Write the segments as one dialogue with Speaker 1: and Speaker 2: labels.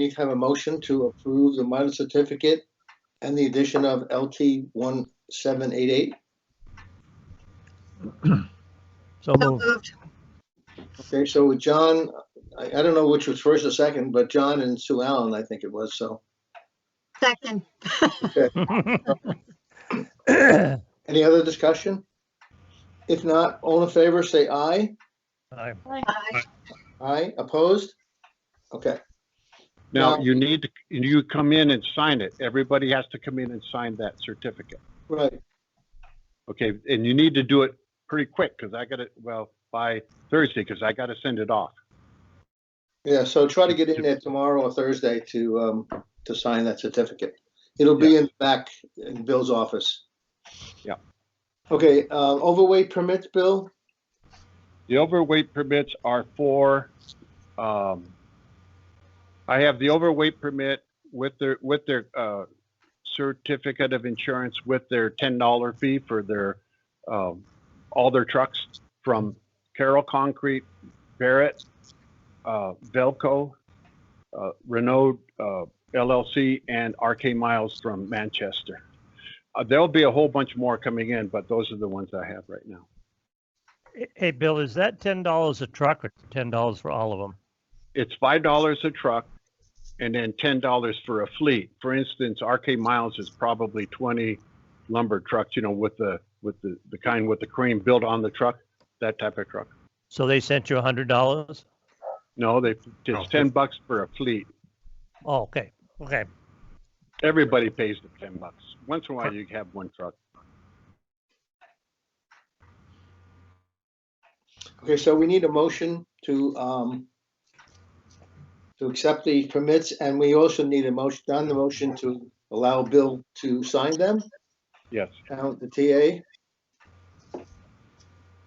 Speaker 1: need to have a motion to approve the mileage certificate and the addition of LT 1788.
Speaker 2: So
Speaker 3: So
Speaker 2: moved.
Speaker 3: moved.
Speaker 1: Okay, so with John, I, I don't know which was first or second, but John and Sue Allen, I think it was, so.
Speaker 3: Second.
Speaker 1: Any other discussion? If not, all in favor, say aye.
Speaker 2: Aye.
Speaker 3: Aye.
Speaker 1: Aye, opposed? Okay,
Speaker 4: Now,
Speaker 1: Now-
Speaker 4: you need to, you come in and sign it. Everybody has to come in and sign that certificate.
Speaker 1: right,
Speaker 4: Okay, and you need to do it pretty quick because I got it, well, by Thursday because I got to send it off.
Speaker 1: yeah, so try to get in there tomorrow or Thursday to, um, to sign that certificate. It'll be in back in Bill's office.
Speaker 4: Yeah.
Speaker 1: Okay, uh, overweight permits, Bill?
Speaker 4: The overweight permits are for, um, I have the overweight permit with their, with their, uh, certificate of insurance with their ten dollar fee for their, um, all their trucks from Carroll Concrete, Barrett, uh, Velco, uh, Renault, uh, LLC and RK Miles from Manchester. Uh, there'll be a whole bunch more coming in, but those are the ones I have right now.
Speaker 2: Hey, Bill, is that ten dollars a truck or ten dollars for all of them?
Speaker 4: it's five dollars a truck and then ten dollars for a fleet. For instance, RK Miles is probably twenty lumber trucks, you know, with the with the, the kind with the crane built on the truck, that type of truck.
Speaker 2: So they sent you a hundred dollars?
Speaker 4: No, they
Speaker 5: No,
Speaker 4: it's ten bucks for a fleet.
Speaker 2: Oh, okay, okay.
Speaker 4: Everybody pays the ten bucks. Once in a while you have one truck.
Speaker 1: Okay, so we need a motion to, um, to accept the permits, and we also need a motion, on the motion to allow Bill to sign them,
Speaker 4: Yes.
Speaker 1: uh, the TA.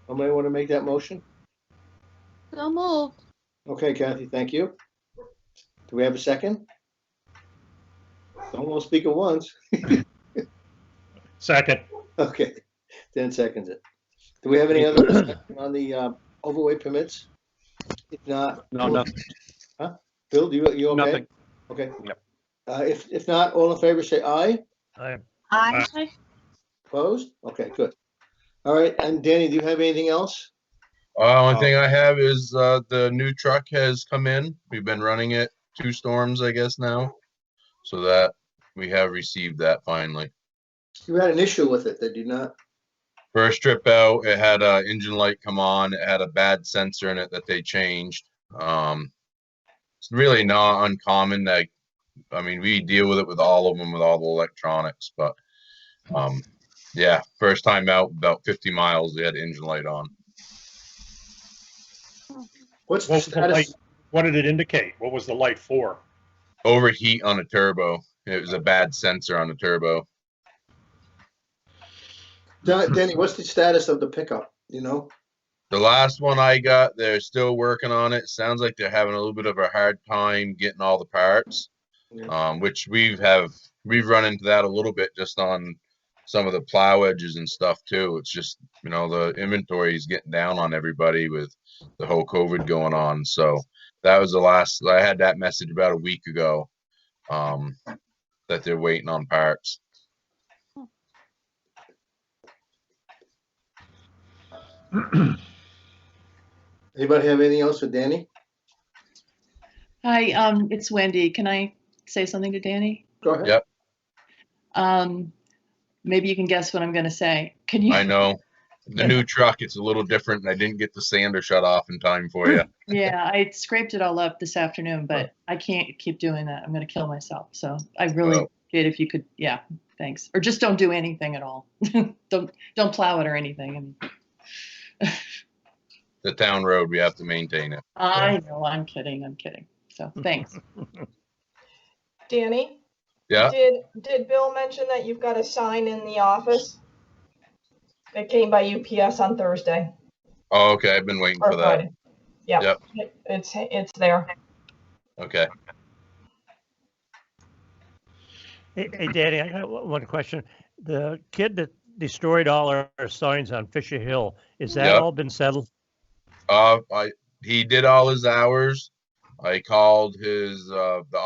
Speaker 1: Somebody want to make that motion?
Speaker 6: So moved.
Speaker 1: Okay, Kathy, thank you. Do we have a second? Don't all speak at once.
Speaker 5: Second.
Speaker 1: Okay, Dan seconds it. Do we have any other discussion on the uh, overweight permits? If not,
Speaker 4: No, nothing,
Speaker 1: Bill, do you, you okay?
Speaker 4: nothing.
Speaker 1: Okay.
Speaker 4: Yep.
Speaker 1: Uh, if, if not, all in favor, say aye.
Speaker 2: I,
Speaker 3: Aye.
Speaker 1: Opposed? Okay, good. All right, and Danny, do you have anything else?
Speaker 5: Uh, only
Speaker 4: Oh.
Speaker 5: thing I have is, uh, the new truck has come in. We've been running it two storms, I guess now. So that, we have received that finally.
Speaker 1: You had an issue with it, did you not?
Speaker 5: First trip out, it had a engine light come on, it had a bad sensor in it that they changed. Um, it's really not uncommon, like, I mean, we deal with it with all of them, with all the electronics, but, um, yeah, first time out, about fifty miles, they had engine light on.
Speaker 1: What's the
Speaker 7: What was the light,
Speaker 1: status?
Speaker 7: what did it indicate? What was the light for?
Speaker 5: overheat on a turbo. It was a bad sensor on the turbo.
Speaker 1: Da- Danny, what's the status of the pickup, you know?
Speaker 5: The last one I got, they're still working on it. Sounds like they're having a little bit of a hard time getting all the parts,
Speaker 1: Yeah.
Speaker 5: um, which we've have we've run into that a little bit just on some of the plow edges and stuff too. It's just you know the inventory is getting down on everybody with the whole COVID going on. So that was the last I had that message about a week ago um, that they're waiting on parts.
Speaker 1: Anybody have anything else for Danny?
Speaker 8: Hi, um, it's Wendy. Can I say something to Danny?
Speaker 1: Go ahead.
Speaker 5: Yeah.
Speaker 8: Um, maybe you can guess what I'm gonna say. Can you?
Speaker 5: I know. The new truck, it's a little different and I didn't get the sander shut off in time for you.
Speaker 8: Yeah, I scraped it all up this afternoon, but I can't keep doing that. I'm gonna kill myself. So I really
Speaker 5: Oh.
Speaker 8: appreciate if you could, yeah, thanks. Or just don't do anything at all. Don't, don't plow it or anything. And
Speaker 5: The town road, we have to maintain it.
Speaker 8: I know, I'm kidding, I'm kidding. So, thanks.
Speaker 9: Danny,
Speaker 5: Yeah,
Speaker 9: did, did Bill mention that you've got a sign in the office? It came by UPS on Thursday
Speaker 5: oh, okay, I've been waiting
Speaker 9: or
Speaker 5: for that.
Speaker 9: Friday. Yeah,
Speaker 5: Yep.
Speaker 9: It- it's, it's there.
Speaker 5: Okay,
Speaker 2: hey, hey, Danny, I got one one question. The kid that destroyed all our our signs on Fisher Hill, is that
Speaker 5: Yeah.
Speaker 2: all been settled?
Speaker 5: uh, I, he did all his hours. I called his, uh, the